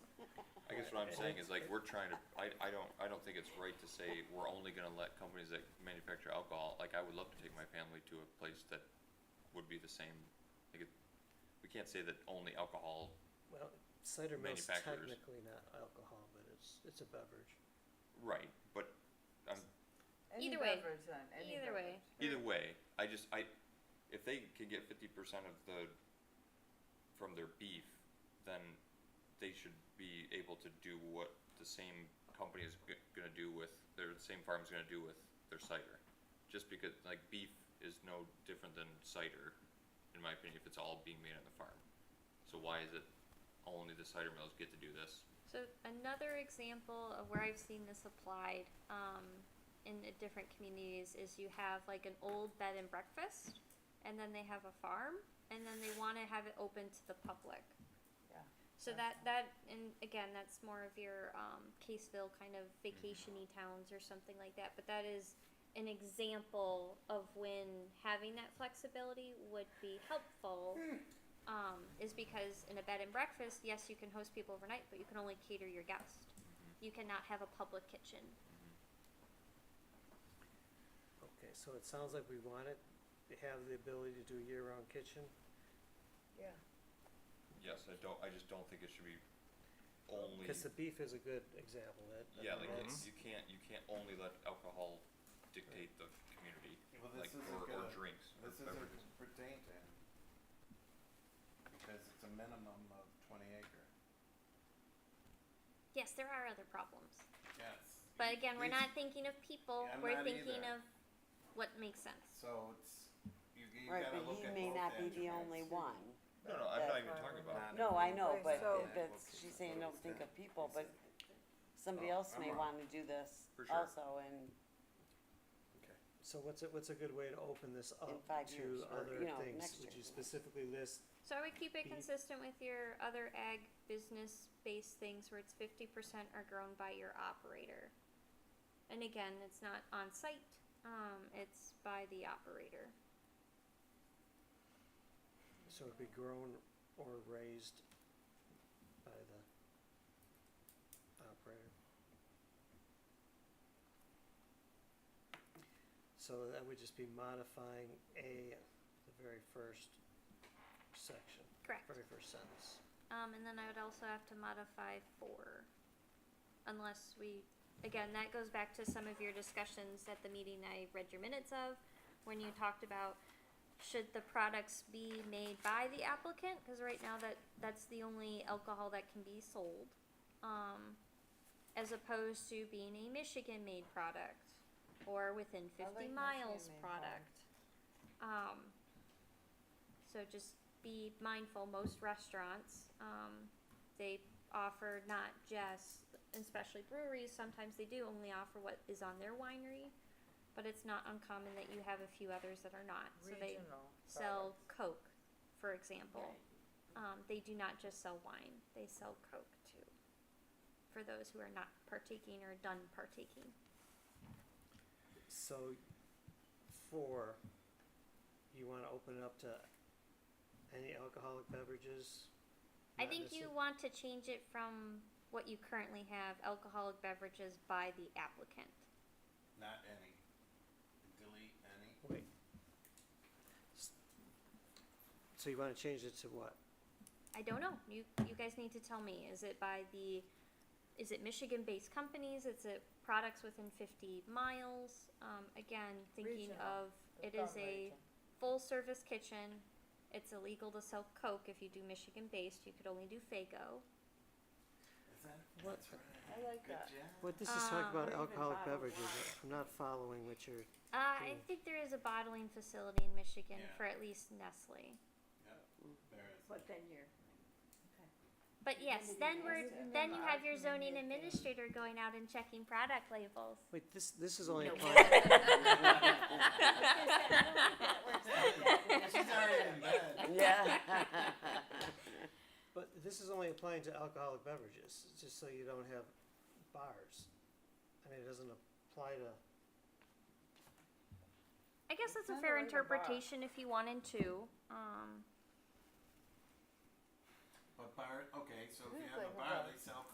I'm saying is like, we're trying to, I, I don't, I don't think it's right to say we're only gonna let companies that manufacture alcohol, like, I would love to take my family to a place that would be the same, like, it- we can't say that only alcohol, Well, cider mill's Manufacturers. technically not alcohol, but it's, it's a beverage. right, but I'm, Either Any way. beverage then, any Either way. beverage. either way, I just, I, if they can get fifty percent of the, from their beef, then they should be able to do what the same company is g- gonna do with, their, the same farm's gonna do with their cider. Just because, like, beef is no different than cider, in my opinion, if it's all being made on the farm. So why is it only the cider mills get to do this? So another example of where I've seen this applied um, in uh, different communities is you have like an old bed and breakfast, and then they have a farm, and then they want to have it open to the public. Yeah, So that that and again, that's more of your um, Caseville kind of vacationy towns or something like that. But that is an example of when having that flexibility would be helpful. Hmm. Um, is because in a bed and breakfast, yes, you can host people overnight, but you can only cater your guest. Mm-hmm. You cannot have a public kitchen. Okay, so it sounds like we want it, they have the ability to do a year-round kitchen. yeah. Yes, I don't, I just don't think it should be only. Cause the beef is a good example, that. I Yeah, mean, like it's, that's- you can't you can't only let alcohol dictate the community, Well, like this isn't or, or gonna, drinks or this beverages. isn't pertain to him. Because it's a minimum of twenty acre. Yes, there are other problems, Yes. but again, we're These- not thinking of people. Yeah, I'm we're not thinking either. of what makes sense. So it's, you, you Right, gotta but look he at may both not be the attributes. only one. No, no, I'm not even That- talking about. Not No, I know, but Right, so- it- that's, she's saying, don't think of people, but somebody Oh, else I'm may wrong. wanna do this For sure. also and So what's a, what's a good way to open this up five years, to or, other you know, things? next Would year. you specifically list, So I would keep it Beef. consistent with your other ag business based things where it's fifty percent are grown by your operator. And again, it's not on site, um, it's by the operator. so it'd be grown or raised by the operator? So that would just be modifying A, the very first section, Correct. very first sentence. Um, and then I would also have to modify four. Unless we, again, that goes back to some of your discussions at the meeting I read your minutes of, when you talked about should the products be made by the applicant, cause right now that, that's the only alcohol that can be sold. Um, as opposed to being a Michigan-made product, or within I fifty like miles Michigan-made product. Um, so just be mindful, most restaurants, um, they offer not just, especially breweries, sometimes they do only offer what is on their winery, but it's not uncommon that you have a few others that are not. So they Regional sell products. Coke, for example. Um, they do not just sell wine, they sell Coke too, for those who are not partaking or done partaking. So, four, you wanna open it up to any alcoholic beverages? I Not think you necessar- want to change it from what you currently have, alcoholic beverages by the applicant. Not any. Delete any. Wait. S- So you wanna change it to what? I don't know. You you guys need to tell me. Is it by the is it Michigan based companies? Is it products within fifty miles? Um, again, thinking Regional. of It's it is from a region. full service kitchen. It's illegal to sell Coke if you do Michigan based. You could only do Fago. Is that, What- that's right. I like Good that. job. What this is talking about Um, Or Uh, even alcoholic bottled beverages, wine. I'm not following what you're, Uh, I Cool. think there is a bottling facility in Michigan Yeah. for at least Nestle. Yeah, there is. But then you're, But Then yes, do then you we're guys do then the you have your marketing zoning and the- administrator going out and checking product labels. wait, this, this is only applying, She's already in bed. Yeah. but this is only applying to alcoholic beverages, just so you don't have bars. I mean, it doesn't apply to, I guess that's Kinda a fair like a bar. interpretation if you wanted to. Um, But bar, okay, so if This you is have like a a bar, bar. they sell